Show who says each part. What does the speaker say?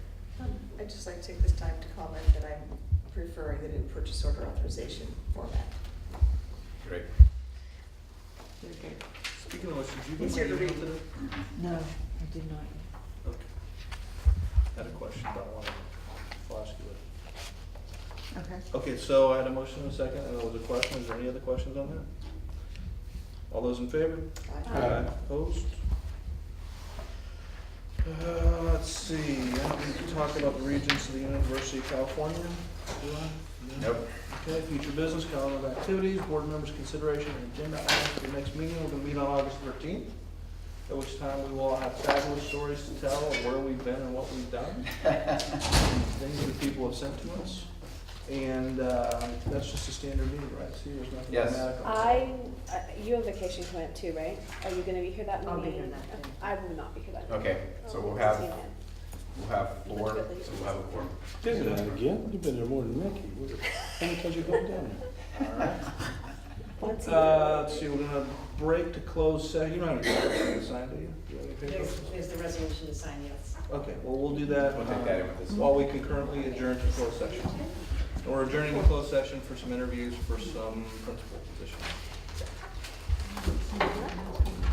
Speaker 1: Um, I'd just like to take this time to comment that I'm preferring the new purchase order authorization format.
Speaker 2: Great.
Speaker 3: Speaking of which, did you get
Speaker 1: Easier
Speaker 3: my
Speaker 1: to
Speaker 3: email
Speaker 1: read.
Speaker 3: today?
Speaker 4: No, I did not.
Speaker 3: Okay. Had a question, but I wanted to ask you it.
Speaker 4: Okay.
Speaker 3: Okay, so I had a motion and a second, and there was a question, is there any other questions on that? All those in favor?
Speaker 1: Aye.
Speaker 2: Aye.
Speaker 3: Opposed? Uh, let's see, I don't need to talk about the Regents of the University of California, do I? No?
Speaker 2: Nope.
Speaker 3: Okay, future business, calendar of activities, board members' consideration and agenda items for the next meeting, we're gonna meet on August thirteenth, at which time we will all have fabulous stories to tell of where we've been and what we've done, things that people have sent to us. And, uh, that's just a standard meeting, right? See, there's nothing
Speaker 2: Yes.
Speaker 3: dramatic on that.
Speaker 5: I, uh, you have vacation coming up too, right? Are you gonna be here that meeting?
Speaker 4: I'll be here that day.
Speaker 5: I will not be here that day.
Speaker 2: Okay, so
Speaker 5: Oh,
Speaker 2: we'll have,
Speaker 5: yeah.
Speaker 2: we'll have four, so we'll have a four.
Speaker 6: Did that again? You've been there more than Mickey. What- How many times you gone down
Speaker 3: All right.
Speaker 5: Once a
Speaker 3: Uh,
Speaker 5: year.
Speaker 3: let's see, we're gonna break to close session, you don't have to sign, do you? Do you? have any paper?
Speaker 7: There's, there's the resolution to sign, yes.
Speaker 3: Okay, well, we'll do that.
Speaker 2: We'll take that in with this.
Speaker 3: uh, While we concurrently adjourn to closed session. And We're adjourning to closed session for some interviews for some principal positions.